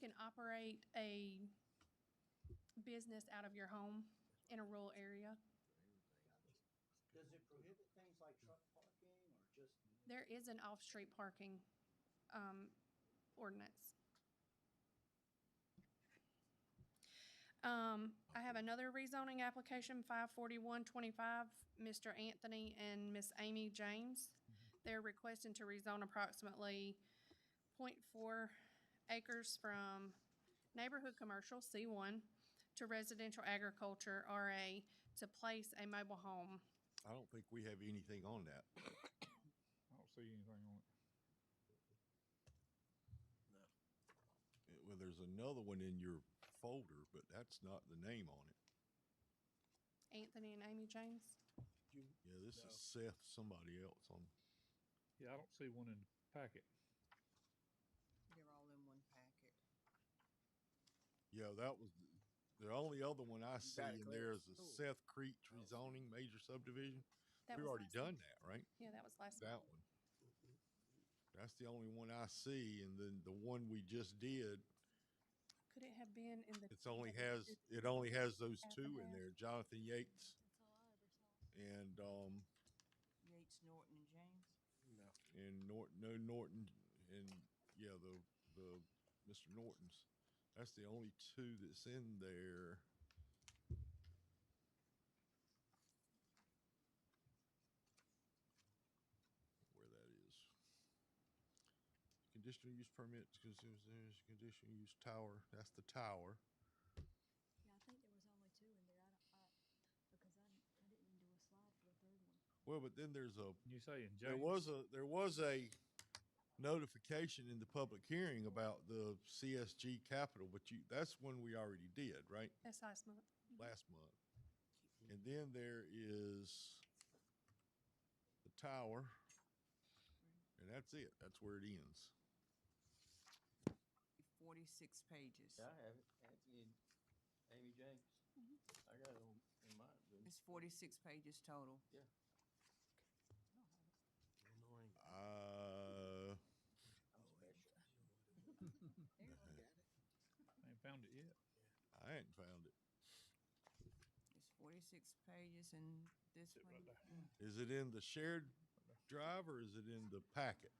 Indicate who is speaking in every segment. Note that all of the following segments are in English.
Speaker 1: can operate a business out of your home in a rural area.
Speaker 2: Does it prohibit things like truck parking or just?
Speaker 1: There is an off-street parking, um, ordinance. Um, I have another rezoning application, five forty-one twenty-five, Mr. Anthony and Miss Amy James. They're requesting to rezone approximately 0.4 acres from neighborhood commercial, C one, to residential agriculture, RA, to place a mobile home.
Speaker 3: I don't think we have anything on that.
Speaker 4: I don't see anything on
Speaker 3: Uh, Well, there's another one in your folder, but that's not the name on it.
Speaker 1: Anthony and Amy James?
Speaker 3: Yeah, this is Seth, somebody else on,
Speaker 4: it. Yeah, I don't see one in the packet.
Speaker 5: They're all in one packet.
Speaker 3: yeah, that was, the- the only other one I see
Speaker 2: got it
Speaker 3: in
Speaker 2: clear.
Speaker 3: there is the
Speaker 2: Cool.
Speaker 3: Seth Creek rezoning major subdivision.
Speaker 1: That
Speaker 3: We've
Speaker 1: was
Speaker 3: already
Speaker 1: last month.
Speaker 3: done that, right?
Speaker 1: Yeah, that was last month.
Speaker 3: That one. That's the only one I see, and then the one we just did,
Speaker 1: Could it have been in the?
Speaker 3: it's only has, it only has those two in
Speaker 1: Abraham.
Speaker 3: there, Jonathan Yates and, um,
Speaker 5: Yates, Norton, and James.
Speaker 3: and Norton, no Norton, and yeah, the the Mr. Norton's. That's the only two that's in there. Where that is. Conditional use permits, consumers, there's conditional use tower, that's the tower.
Speaker 6: Yeah, I think there was only two in there. I don't, I, because I, didn't- I didn't do a slide for the third one.
Speaker 3: Well, but then there's a
Speaker 4: You say in James?
Speaker 3: There was a, there was a notification in the public hearing about the CSG Capital, but you, that's one we already did, right?
Speaker 1: That's last month.
Speaker 3: Last month. And then there is the tower. And that's it. That's where it ends.
Speaker 5: Forty-six pages.
Speaker 2: I have it, Anthony and Amy James. I got it on, in mine.
Speaker 5: It's forty-six pages total.
Speaker 3: Uh,
Speaker 4: I ain't found it yet.
Speaker 3: Uh, I hadn't found it.
Speaker 5: It's forty-six pages and this
Speaker 4: Sit right
Speaker 5: one,
Speaker 4: there.
Speaker 3: Is it in the shared drive or is it in the packet?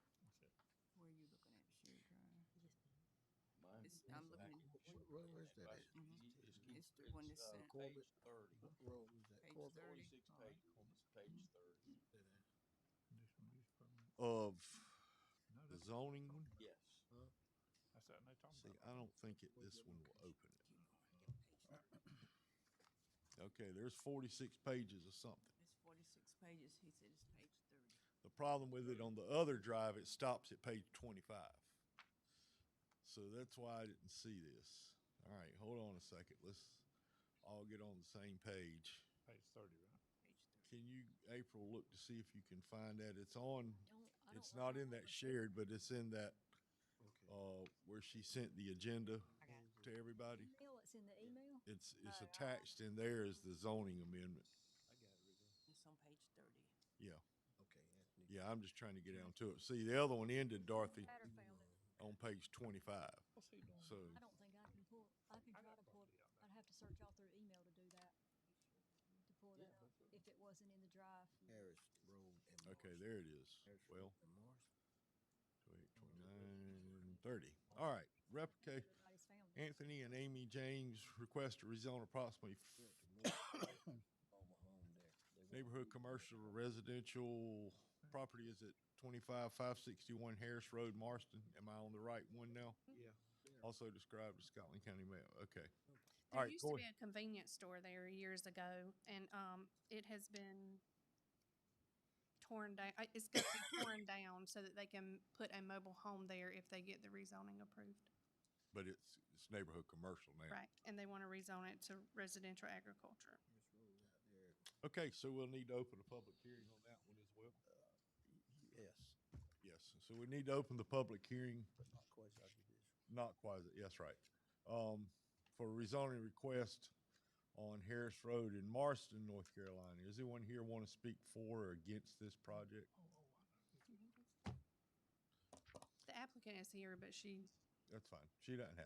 Speaker 5: where are you looking at, Sherry Drive?
Speaker 2: Mine.
Speaker 5: It's, I'm looking,
Speaker 7: Where was that at?
Speaker 5: at- it's the one that's
Speaker 2: Uh,
Speaker 5: sent,
Speaker 2: Page thirty,
Speaker 7: What road was that?
Speaker 5: page
Speaker 7: Corbin?
Speaker 5: thirty.
Speaker 2: forty-six
Speaker 5: Oh,
Speaker 2: page, page thirty,
Speaker 4: Conditional use permit.
Speaker 3: Of
Speaker 4: No,
Speaker 3: the
Speaker 4: that's,
Speaker 3: zoning one?
Speaker 2: yes.
Speaker 4: that's that they talking
Speaker 3: See,
Speaker 4: about.
Speaker 3: I don't think it, this one will open it. Okay, there's forty-six pages of something.
Speaker 5: It's forty-six pages, he said it's page thirty.
Speaker 3: The problem with it on the other drive, it stops at page twenty-five. So that's why I didn't see this. All right, hold on a second. Let's all get on the same page.
Speaker 4: Page thirty, right?
Speaker 5: Page thirty.
Speaker 3: Can you, April, look to see if you can find that? It's on,
Speaker 6: Don't, I don't.
Speaker 3: it's not in
Speaker 6: remember.
Speaker 3: that shared, but it's in that, uh, where she sent the agenda to everybody.
Speaker 6: Email, it's in the email?
Speaker 3: It's, it's
Speaker 6: uh,
Speaker 3: attached in there is the zoning amendment.
Speaker 5: It's on page thirty.
Speaker 3: Yeah,
Speaker 7: Okay, Anthony.
Speaker 3: yeah, I'm just trying to get down to it. See, the other one ended, Dorothy,
Speaker 6: Better found it.
Speaker 3: on page twenty-five,
Speaker 4: What's he doing?
Speaker 3: so.
Speaker 6: I don't think I can pull, I can
Speaker 4: I
Speaker 6: try
Speaker 4: got
Speaker 6: to
Speaker 4: a
Speaker 6: pull,
Speaker 4: copy of that.
Speaker 6: I'd have to search all through email to do that. To pull
Speaker 2: Yeah,
Speaker 6: that up,
Speaker 2: that's
Speaker 6: if it wasn't in the drive.
Speaker 7: Harris Road and Marsh.
Speaker 3: Okay, there it is.
Speaker 7: Harris Road
Speaker 3: Well,
Speaker 7: and Marsh.
Speaker 3: 28, 29, 30. All right, replica,
Speaker 6: Everybody's found it.
Speaker 3: Anthony and Amy James request to rezone approximately
Speaker 7: Yeah, to Marsh. All my home there. They want-
Speaker 3: neighborhood commercial or residential property is at 25561 Harris Road, Marston. Am I on the right one now?
Speaker 2: Yeah.
Speaker 3: Also described as Scotland County map. Okay. All
Speaker 1: There
Speaker 3: right,
Speaker 1: used to be
Speaker 3: go ahead.
Speaker 1: a convenience store there years ago and, um, it has been torn down, it's gonna be torn down so that they can put a mobile home there if they get the rezoning approved.
Speaker 3: But it's, it's neighborhood commercial now.
Speaker 1: Right, and they wanna rezone it to residential agriculture.
Speaker 7: This road out there,
Speaker 3: Okay, so we'll need to open a public hearing on that one as well.
Speaker 7: Yes,
Speaker 3: Yes, so we need to open the public hearing
Speaker 7: but not quite like it is.
Speaker 3: Not quasi, yes, right. Um, for rezoning request on Harris Road in Marston, North Carolina. Does anyone here want to speak for or against this project?
Speaker 7: Oh,
Speaker 1: The applicant is here, but she
Speaker 3: That's fine. She doesn't have